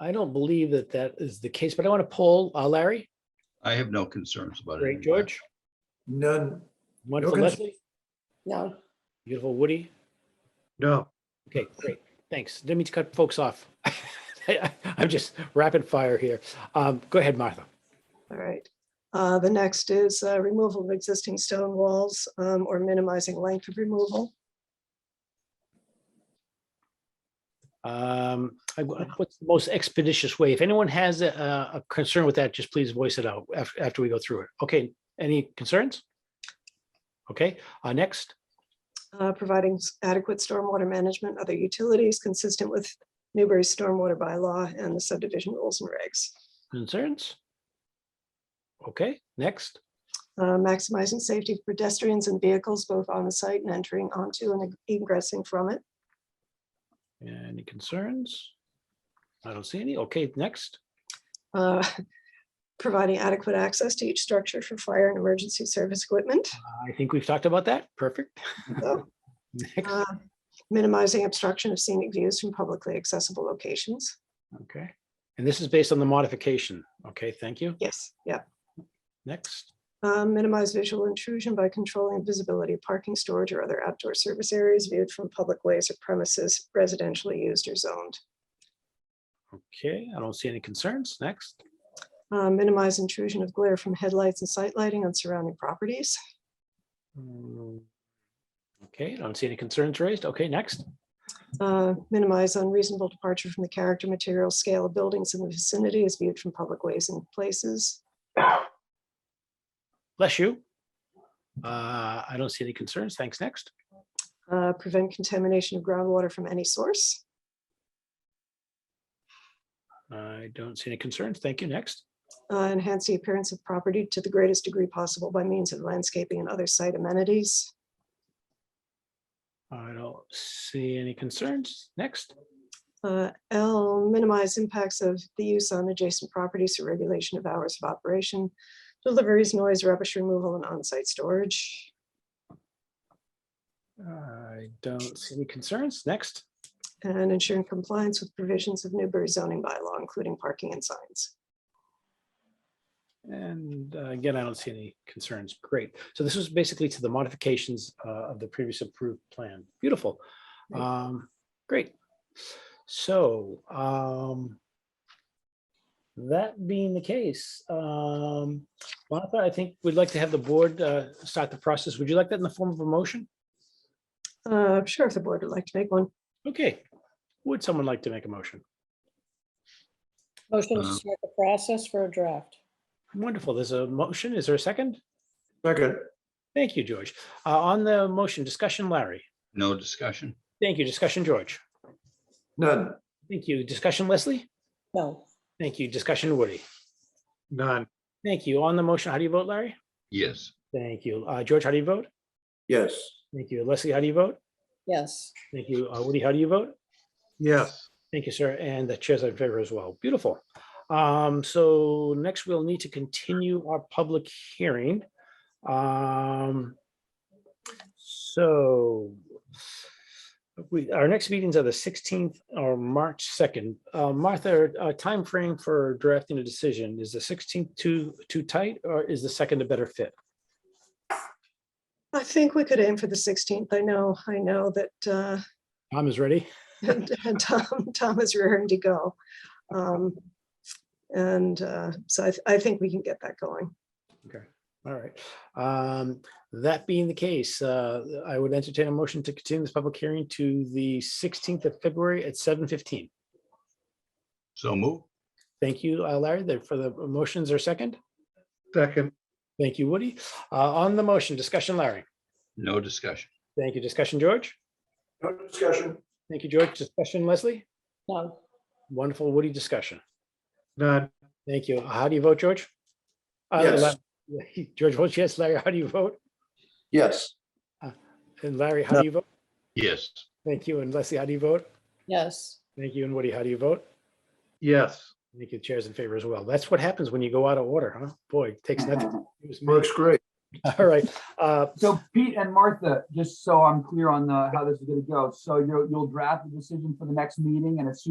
I don't believe that that is the case, but I want to poll uh, Larry, I have no concerns about it. great George, None. wonderful concerns. Leslie, No, beautiful Woody. No. Okay, great. Thanks. Didn't mean to cut folks off. I- I'm just rapid fire here. Um, Go ahead, Martha. all right. Uh, The next is uh, removal of existing stone walls um, or minimizing length of removal. Um, I- What's the most expeditious way? If anyone has a- a a concern with that, just please voice it out af- after we go through it. Okay, any concerns? Okay, uh, next, uh, providing s- adequate stormwater management, other utilities consistent with Newbury's stormwater bylaw and the subdivision rules and regs. concerns? Okay, next, Uh, Maximizing safety for pedestrians and vehicles both on the site and entering onto and egressing from it. any concerns? I don't see any. Okay, next, Uh, Providing adequate access to each structure for fire and emergency service equipment. I think we've talked about that. Perfect. Oh. Next, Uh, Minimizing obstruction of scenic views from publicly accessible locations. okay. And this is based on the modification. Okay, thank you. Yes, yeah. Next, Uh, Minimize visual intrusion by controlling visibility of parking, storage, or other outdoor service areas viewed from public ways or premises residentially used or zoned. okay, I don't see any concerns. Next, Uh, Minimize intrusion of glare from headlights and sight lighting on surrounding properties. Mm, Okay, I don't see any concerns raised. Okay, next. Uh, Minimize unreasonable departure from the character, material, scale of buildings in the vicinity as viewed from public ways and places. Bless you. Uh, I don't see any concerns. Thanks. Next. Uh, Prevent contamination of groundwater from any source. I don't see any concerns. Thank you. Next. Uh, Enhance the appearance of property to the greatest degree possible by means of landscaping and other site amenities. I don't see any concerns. Next. Uh, L, minimize impacts of the use on adjacent properties through regulation of hours of operation, deliveries, noise, rubbish removal, and on-site storage. I don't see any concerns. Next. And ensuring compliance with provisions of Newbury zoning bylaw, including parking and signs. And uh, again, I don't see any concerns. Great. So this was basically to the modifications uh, of the previous approved plan. Beautiful. Great. Um, Great. So um, that being the case, um, Martha, I think we'd like to have the board uh, start the process. Would you like that in the form of a motion? Uh, Sure, if the board would like to make one. Okay. Would someone like to make a motion? Motion to Uh, start the process for a draft. Wonderful. There's a motion. Is there a second? Second. Thank you, George. Uh, On the motion discussion, Larry. No discussion? Thank you. Discussion, George. None. Thank you. Discussion, Leslie? No, Thank you. Discussion, Woody? None. Thank you. On the motion, how do you vote, Larry? Yes. Thank you. Uh, George, how do you vote? Yes. Thank you. Leslie, how do you vote? yes, Thank you. Uh, Woody, how do you vote? Yes. Thank you, sir. And the chairs are in favor as well. Beautiful. Um, so next we'll need to continue our public hearing. Um, so we, our next meetings are the sixteenth or March second. Uh, Martha, uh, timeframe for drafting a decision, is the sixteenth too, too tight or is the second a better fit? I think we could aim for the 16th. I know, I know that uh, Tom is ready. and and Tom, Tom is raring to go. Um, And uh, so I, th- I think we can get that going. Okay, all right. Um, That being the case, uh, I would entertain a motion to continue this public hearing to the 16th of February at 7:15. So move? Thank you, uh, Larry, there for the motions or second. Second. Thank you, Woody. Uh, On the motion, discussion, Larry. No discussion? Thank you. Discussion, George. No discussion. Thank you, George. Discussion, Leslie. no, Wonderful Woody discussion. None. Thank you. How do you vote, George? Uh, Yes. La- George votes yes. Larry, how do you vote? Yes. And Larry, how do you vote? Yes. Thank you. And Leslie, how do you vote? yes, Thank you. And Woody, how do you vote? Yes. Thank you, chairs in favor as well. That's what happens when you go out of order, huh? Boy, it takes nothing. to confuse me. Works great. All right, uh, So Pete and Martha, just so I'm clear on the, how this is gonna go, so you'll, you'll draft the decision for the next meeting and as soon